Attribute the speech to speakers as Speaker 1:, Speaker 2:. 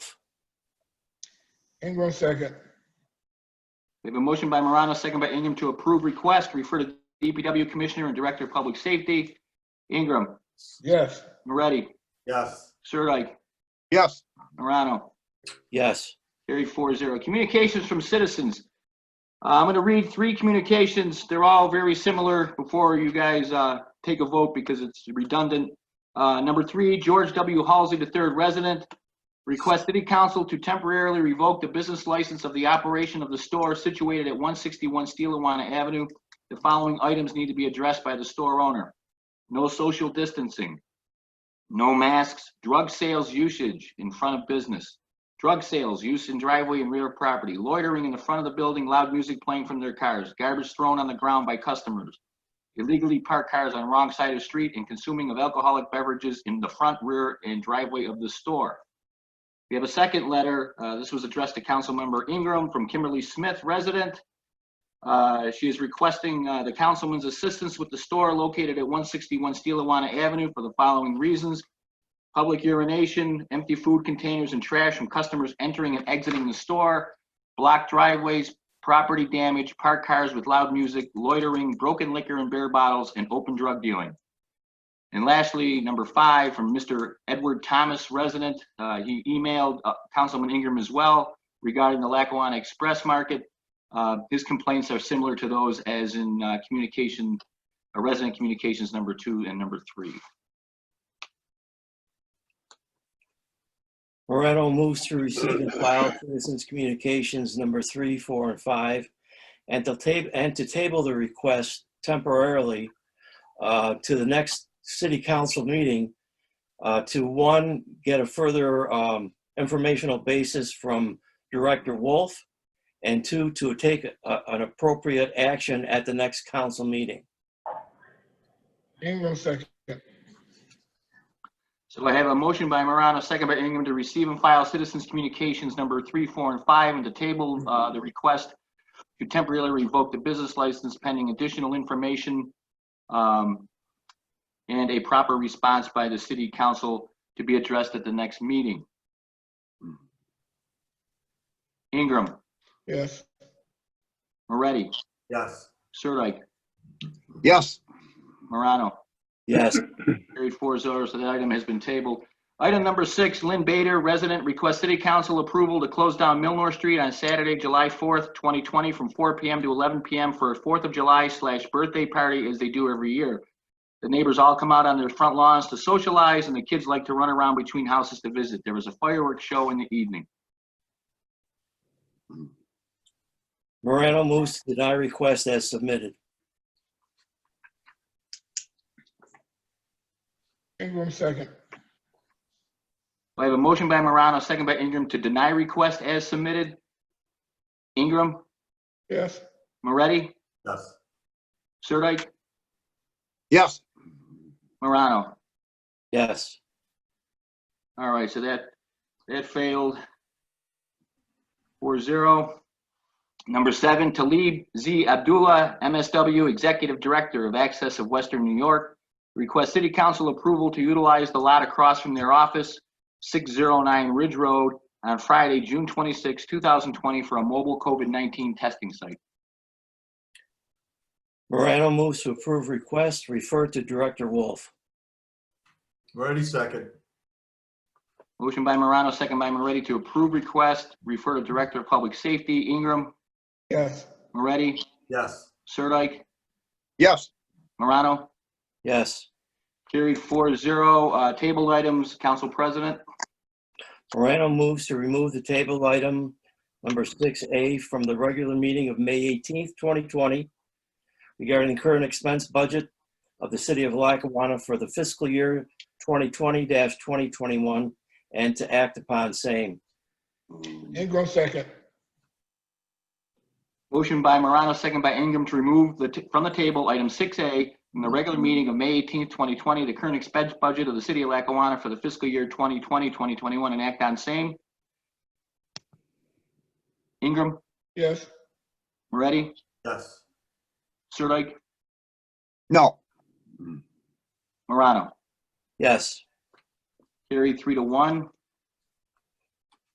Speaker 1: Ingram second.
Speaker 2: We have a motion by Morano, second by Ingram to approve request, refer to DPW Commissioner and Director of Public Safety. Ingram,
Speaker 1: Yes.
Speaker 2: Moretti,
Speaker 3: Yes.
Speaker 2: Sirdike,
Speaker 4: Yes.
Speaker 2: Morano,
Speaker 5: yes,
Speaker 2: carried four zero. Communications from citizens. Uh, I'm going to read three communications. They're all very similar before you guys uh, take a vote because it's redundant. Uh, Number three, George W. Halsey, the third resident, requests city council to temporarily revoke the business license of the operation of the store situated at 161 Steelawana Avenue. The following items need to be addressed by the store owner. No social distancing, no masks, drug sales usage in front of business, drug sales, use in driveway and rear property, loitering in the front of the building, loud music playing from their cars, garbage thrown on the ground by customers, illegally parked cars on wrong side of the street, and consuming of alcoholic beverages in the front, rear, and driveway of the store. We have a second letter. uh, This was addressed to Councilmember Ingram from Kimberly Smith, resident. Uh, She is requesting uh, the councilman's assistance with the store located at 161 Steelawana Avenue for the following reasons public urination, empty food containers and trash from customers entering and exiting the store, blocked driveways, property damage, parked cars with loud music, loitering, broken liquor and beer bottles, and open drug dealing. And lastly, number five, from Mr. Edward Thomas, resident, uh, he emailed uh, Councilman Ingram as well regarding the Lackawanna Express Market. Uh, His complaints are similar to those as in uh, communication, uh, resident communications number two and number three.
Speaker 5: Moreno moves to receive and file citizens' communications number three, four, and five, and to table, and to table the request temporarily uh, to the next city council meeting uh, to, one, get a further um, informational basis from Director Wolf, and two, to take a- an appropriate action at the next council meeting.
Speaker 1: Ingram second.
Speaker 2: So I have a motion by Morano, second by Ingram, to receive and file citizens' communications number three, four, and five, and to table uh, the request to temporarily revoke the business license pending additional information um, and a proper response by the city council to be addressed at the next meeting. Ingram,
Speaker 1: Yes.
Speaker 2: Moretti,
Speaker 3: Yes.
Speaker 2: Sirdike,
Speaker 4: Yes.
Speaker 2: Morano.
Speaker 5: Yes,
Speaker 2: Carried four zero, so that item has been tabled. Item number six, Lynn Bader, resident, requests city council approval to close down Milnor Street on Saturday, July fourth, twenty twenty, from four PM to eleven PM for a Fourth of July slash birthday party as they do every year. The neighbors all come out on their front lawns to socialize and the kids like to run around between houses to visit. There is a fireworks show in the evening.
Speaker 5: Moreno moves to deny request as submitted.
Speaker 1: Ingram second.
Speaker 2: I have a motion by Morano, second by Ingram to deny request as submitted. Ingram,
Speaker 1: Yes.
Speaker 2: Moretti,
Speaker 3: Yes.
Speaker 2: Sirdike,
Speaker 4: Yes.
Speaker 2: Morano.
Speaker 5: Yes.
Speaker 2: All right, so that, that failed. Four zero. Number seven, Talib Z. Abdullah, MSW Executive Director of Access of Western New York, requests city council approval to utilize the lot across from their office, six zero nine Ridge Road, on Friday, June 26, thousand twenty, for a mobile COVID-nineteen testing site.
Speaker 5: Moreno moves to approve request, refer to Director Wolf.
Speaker 3: Moretti second.
Speaker 2: Motion by Morano, second by Moretti to approve request, refer to Director of Public Safety, Ingram,
Speaker 1: Yes.
Speaker 2: Moretti,
Speaker 3: Yes.
Speaker 2: Sirdike,
Speaker 4: Yes.
Speaker 2: Morano.
Speaker 5: Yes.
Speaker 2: Carried four zero. Uh, tabled items, Council President.
Speaker 5: Moreno moves to remove the table item number 6A from the regular meeting of May 18th, 2020 regarding the current expense budget of the city of Lackawanna for the fiscal year 2020-2021 and to act upon same.
Speaker 1: Ingram second.
Speaker 2: Motion by Morano, second by Ingram to remove the, t- from the table, item six A, from the regular meeting of May eighteenth, twenty twenty, the current expense budget of the city of Lackawanna for the fiscal year 2020-2021, and act on same. Ingram,
Speaker 1: Yes.
Speaker 2: Moretti,
Speaker 3: Yes.
Speaker 2: Sirdike,
Speaker 4: No.
Speaker 2: Morano.
Speaker 5: Yes.
Speaker 2: Carried three to one.